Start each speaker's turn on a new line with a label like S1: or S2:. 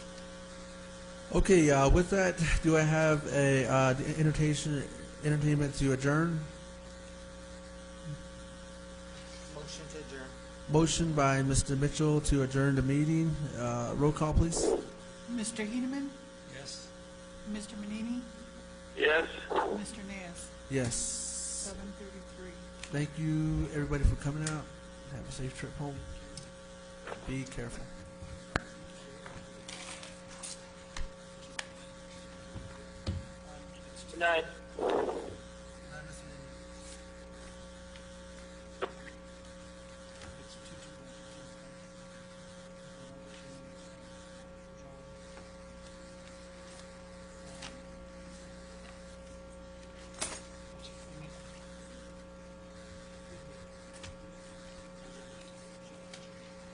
S1: Okay, uh, with that, do I have a uh, the entertain, entertainment to adjourn?
S2: Motion to adjourn.
S1: Motion by Mr. Mitchell to adjourn the meeting. Uh, Roll call, please.
S3: Mr. Heneman?
S2: Yes.
S3: Mr. Manini?
S4: Yes.
S3: Mr. Ness?
S1: Yes.
S3: Seven thirty-three.
S1: Thank you, everybody, for coming out. Have a safe trip home. Be careful.
S4: Good night.